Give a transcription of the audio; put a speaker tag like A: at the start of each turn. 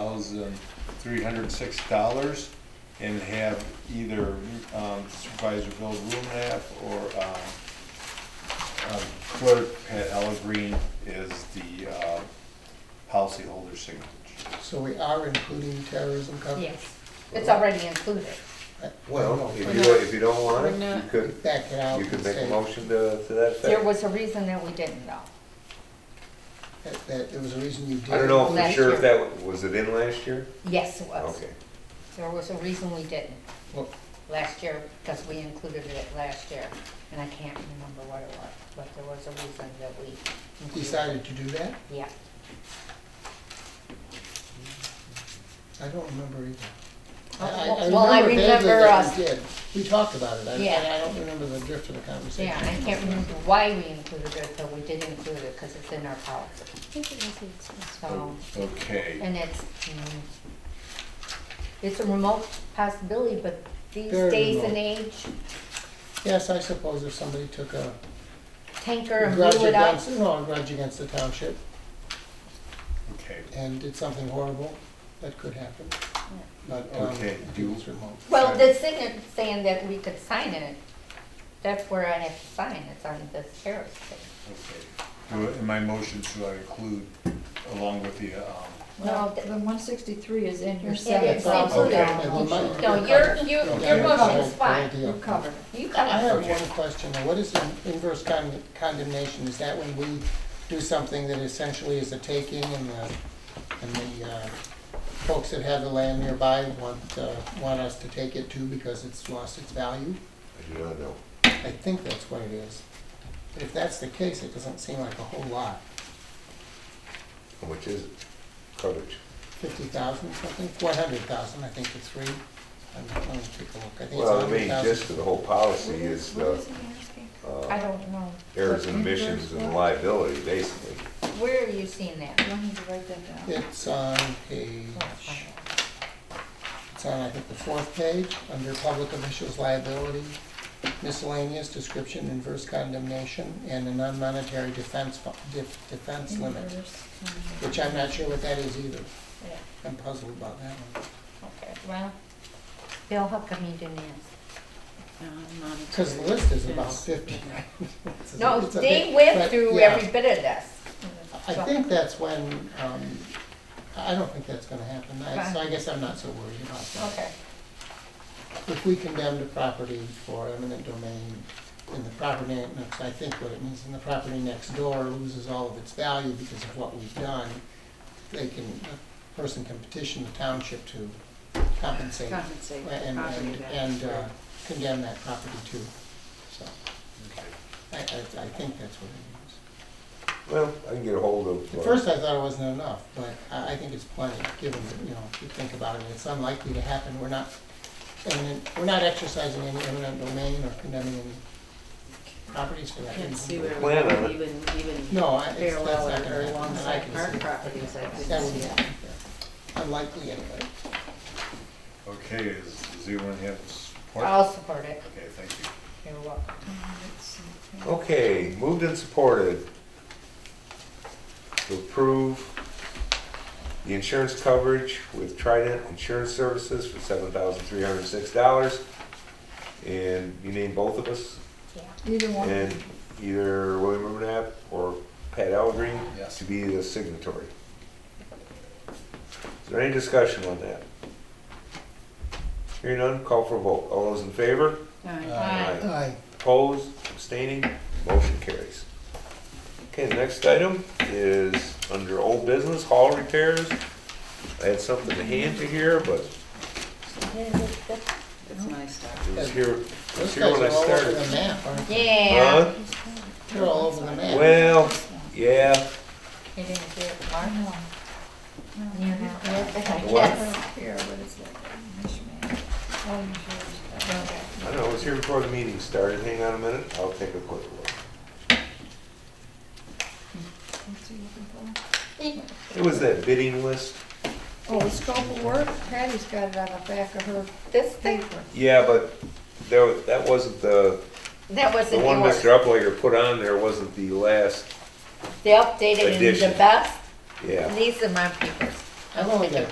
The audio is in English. A: thousand three hundred six dollars and have either um, Supervisor Bill Rumenap or um, um, Clerk Pat Ellegreen is the uh, policyholder signature.
B: So we are including terrorism coverage?
C: Yes, it's already included.
D: Well, if you, if you don't want it, you could,
B: Back it out
D: you
B: and
D: could make a
B: say
D: motion to, to that
C: There
D: effect.
C: was a reason that we didn't though.
B: that, that there was a reason you did.
D: I don't know for
C: Last
D: sure
C: year.
D: if that, was it in last year?
C: Yes, it was.
D: Okay.
C: There was a reason we didn't
B: Well,
C: last year, because we included it last year. And I can't remember what it was, but there was a reason that we included.
B: Decided to do that?
C: Yeah,
B: I don't remember either. I- I-
C: Well, I
B: vaguely
C: remember
B: that
C: us-
B: We did, we talked about it, I, I- I
C: Yeah.
B: don't remember the drift of the conversation.
C: yeah, and I can't remember why we included it, but we did include it because it's in our policy. So,
A: Okay,
C: Oh. and it's, mm, it's a remote possibility, but these
B: Very
C: days
B: remote.
C: and age,
B: Yes, I suppose if somebody took a
C: tanker and
B: grudge
C: blew it up.
B: against, no, a grudge against the township
A: okay.
B: and did something horrible, that could happen. But, um,
A: Okay, do-
B: it's remote.
C: Well, the thing is saying that we could sign it, that's where I have to sign, it's on this terrace thing.
A: Okay. Do- In my motion, should I include along with the, um,
C: No,
E: Well,
C: th-
E: the one sixty-three is in your
C: It
E: seven
C: is
E: thousand
C: included.
B: Okay,
E: dollar
B: then
E: motion.
B: my-
C: No,
B: you're
C: your,
B: covered.
C: your,
B: Okay,
C: your
B: you're
C: motion
B: covered.
C: is fine.
B: Great deal.
E: You're covered.
C: You
B: I I
C: got it.
B: have one question, though. what is an inverse con- condemnation? Is that when we do something that essentially is a taking and the, and the uh, folks that have the land nearby want, uh, want us to take it too because it's lost its value?
D: I do not know.
B: I think that's what it is. But if that's the case, it doesn't seem like a whole lot.
D: How much is it? Coverage?
B: Fifty thousand something, four hundred thousand, I think the three. I'm let me take a look. I think it's
D: Well, I
B: hundred
D: mean, just for
B: thousand.
D: the whole policy is
E: What
D: the uh,
E: is he asking?
C: I don't know.
D: errors and omissions and liability, basically.
C: Where are you seeing that?
B: Uh,
E: You'll need to write that down.
B: It's on page, It's on, I think, the fourth page, under public officials liability, miscellaneous description, inverse condemnation, and a non-monetary defense, fu- def- defense limit,
E: Inverse condemnation.
B: which I'm not sure what that is either.
C: Yeah,
B: I'm puzzled about that one.
C: okay, well, Bill, how come you didn't ask?
B: Because the list is about fifty. It's a-
C: No,
B: it's a
C: they
B: big-
C: went
B: but,
C: through
B: yeah.
C: every bit of this.
B: I think that's when, um, I don't think that's gonna happen, I- so I guess I'm not so worried about that.
C: Okay,
B: If we condemned a property for eminent domain, and the property, next- I think what it means, and the property next door loses all of its value because of what we've done, they can, the person can petition the township to compensate
E: Compensate the
B: and,
E: property
B: and,
E: back.
B: and uh, condemn that property too. So,
A: okay.
B: I, I, I think that's what it
D: Well, I can get a hold of.
B: means. At
D: uh,
B: first, I thought it wasn't enough, but I, I think it's plenty, given, that, you know, if you think about it, it's unlikely to happen, we're not, eminent we're not exercising any eminent domain or condemning any properties for that
F: Can't see
B: reason.
F: where we
D: Plan on
F: would
D: it.
F: even, even
B: No, I, it's, that's
F: parallel
B: not
F: it
B: gonna
F: or
B: happen, and I
F: alongside
B: can
F: our
B: see it.
F: properties, I
B: That
F: couldn't
B: would
F: see
B: be
F: it.
B: unlikely anyway.
A: Okay, is, does anyone have support?
C: I'll support it.
A: Okay, thank you.
C: You're welcome.
D: Okay, moved and supported to approve the insurance coverage with Trident Insurance Services for seven thousand three hundred and six dollars. And you name both of us,
C: Yeah.
E: Either one.
D: and either William Rubenap or Pat Algreen
A: Yes.
D: to be the signatory. Is there any discussion on that? Hearing none, call for a vote. All those in favor?
E: Aye.
B: Uh,
C: Aye.
B: Aye.
D: Opposed, abstaining, motion carries. Okay, the next item is under old business, hall repairs. I had something to hand to here, but
F: It's my stuff.
D: it was here, it was
B: Those
D: here
B: guys are
D: when I
B: all over the
D: started.
B: map, aren't they?
C: Yeah.
B: They're all over the
D: Huh?
B: map.
D: Well, yeah,
C: You didn't do it, Mark?
E: No,
C: You're
E: you've
C: not
E: got it.
C: I
D: What?
C: guess.
E: Here, but it's like, mishmash. Oh, insurance.
C: Okay.
D: I know, it was here before the meeting started. Hang on a minute, I'll take a quick look.
E: What's he looking
D: It was that bidding list.
E: for? Oh, the scope of work, Patty's got it on the back of her
C: This thing,
E: paper.
D: Yeah, but there, that wasn't the,
C: that
D: the
C: wasn't
D: one
C: yours.
D: Mr. Uplager put on there wasn't the last,
C: They updated in the
D: Edition.
C: best,
D: yeah.
C: these are my papers.
B: I've only got